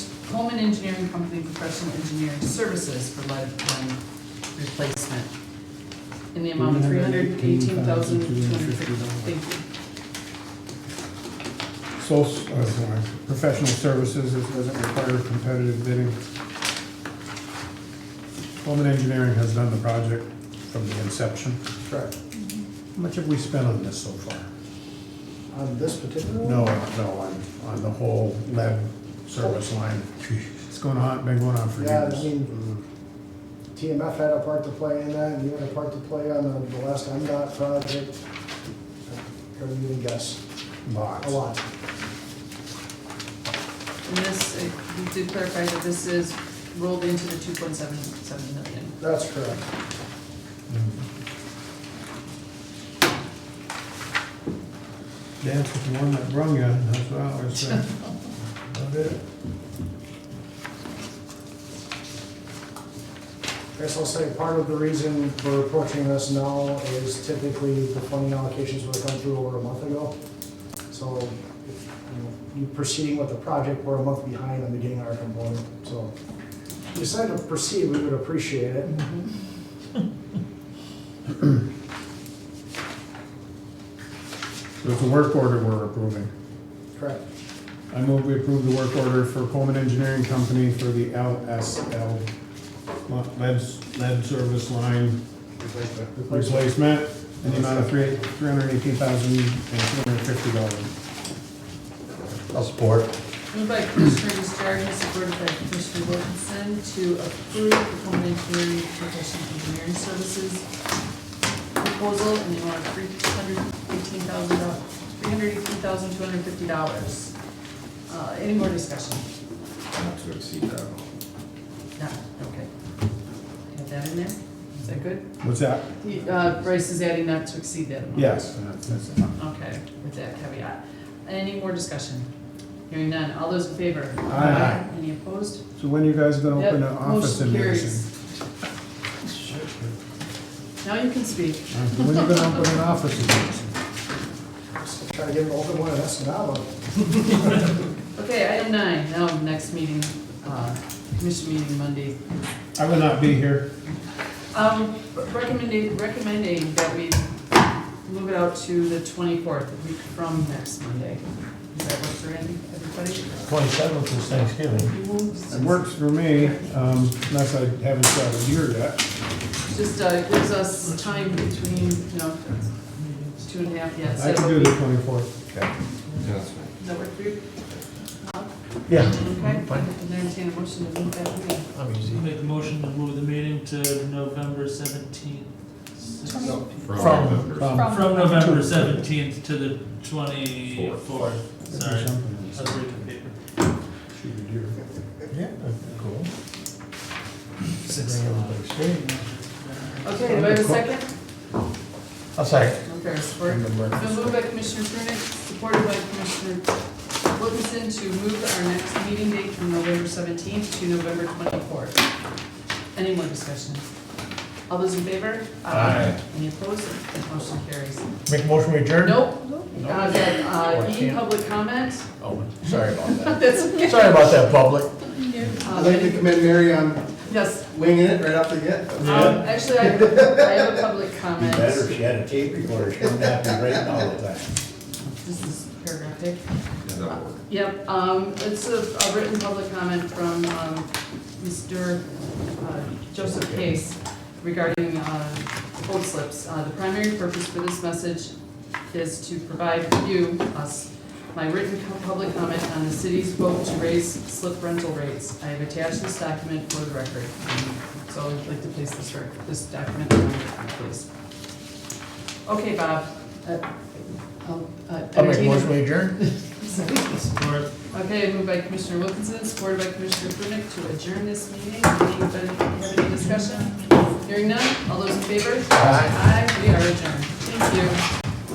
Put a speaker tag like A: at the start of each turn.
A: Coleman Engineering Company Professional Engineering Services for lead-line replacement in the amount of three hundred and eighteen thousand two hundred fifty dollars. Thank you.
B: Sole, s- oh, sorry, professional services, this doesn't require competitive bidding. Coleman Engineering has done the project from the inception.
C: Correct.
B: How much have we spent on this so far?
C: On this particular one?
B: No, no, on, on the whole lead service line. It's going on, been going on for
C: Yeah, I
B: years. Mm-hmm.
C: mean, TMF had a part to play in that, and you had a part to play on the, the last MDOT project. Couldn't even guess,
B: Lots.
C: a lot.
A: And this, uh, we did clarify that this is rolled into the two point seven seven million.
C: That's correct.
B: Mm-hmm. Dance with the one that brung you, that's what I always say.
C: Guess I'll say part of the reason we're approaching this now is typically the funding allocations were done through over a month ago. So, if, you know, you proceeding with the project, we're a month behind on the getting our component, so. If you decide to proceed, we would appreciate it.
B: So it's a work order we're approving.
C: Correct.
B: I move we approve the work order for Coleman Engineering Company for the LSL lo- lead, lead service line replacement in the amount of three, three hundred eighteen thousand and two hundred fifty dollars.
D: I'll support.
A: Moved by Commissioner Justardens, supported by Commissioner Wilkinson, to approve the Coleman Engineering Professional Engineering Services proposal in the amount of three hundred eighteen thousand, three hundred eighteen thousand, two hundred fifty dollars. Uh, any more discussion?
E: Not to exceed that.
A: No, okay. Have that in there? Is that good?
B: What's that?
A: The, Uh, Bryce is adding not to exceed that amount.
B: Yes. and that's- that's it.
A: Okay, with that caveat. Any more discussion? Hearing none. All those in favor?
B: Aye.
A: Any opposed?
B: So when are you guys gonna
A: Yep,
B: open an office
A: motion
B: in Madison?
A: carries. Now you can speak.
B: Uh, When are you gonna open an office in Madison?
C: Just Try to get an open one, that's not one.
A: Okay, item nine, now next meeting, uh, commission meeting Monday.
B: I will not be here.
A: Um, recommending, recommending that we move it out to the twenty-fourth, the week from next Monday. Does that work for any- everybody?
D: Twenty-seventh is Thanksgiving.
B: It works for me, um, unless I haven't shot a deer yet.
A: Just, uh, gives us time between, you know, it's two and a half, yeah. so
B: I can do the twenty-fourth.
E: Yeah, that's fine.
A: Does that work for you?
D: Yeah.
A: Okay, I can entertain a motion to move that meeting.
D: I'm easy.
F: Make a motion to move the meeting to November seventeenth.
E: No,
D: From-
E: November.
B: from-
F: From November seventeenth to the twenty-fourth, sorry. I was reading the paper.
B: Shoot a deer.
D: Yeah, cool. Bring everybody straight.
A: Okay, do I have a second?
D: I'll say.
A: Okay, support. So moved by Commissioner Prunick, supported by Commissioner Wilkinson to move our next meeting date from November seventeenth to November twenty-fourth. Any more discussion? All those in favor?
D: Aye.
A: Any opposed? That motion carries.
D: Make a motion we adjourn?
A: Nope, uh, that, uh,
D: Or
A: E,
D: can't.
A: public comment.
D: Oh, sorry about that.
A: That's uh, okay.
D: Sorry about that, public.
A: Uh,
G: I'd like to commend Mary on
A: Yes,
G: winging it right off the get.
A: um, actually, I have, I have a public comment.
D: if she had a tape recorder, she wouldn't have to be writing all the time.
A: This is paragraphic.
E: Yeah, that'll work.
A: Yep, um, it's a, a written public comment from, um, Mr. uh, Joseph Case regarding, uh, hold slips. Uh, the primary purpose for this message is to provide you, us, my written co- public comment on the city's vote to raise slip rental rates. I have attached this document for the record. So I'd like to place this rec, this document on the record, please. Okay, Bob, uh, I'll, uh,
D: I'll make a
A: entertain a-
D: motion we adjourn?
F: Support.
A: Okay, moved by Commissioner Wilkinson, supported by Commissioner Prunick to adjourn this meeting. Anybody have any discussion? Hearing none, all those in favor? Aye. we are adjourned. Thank you.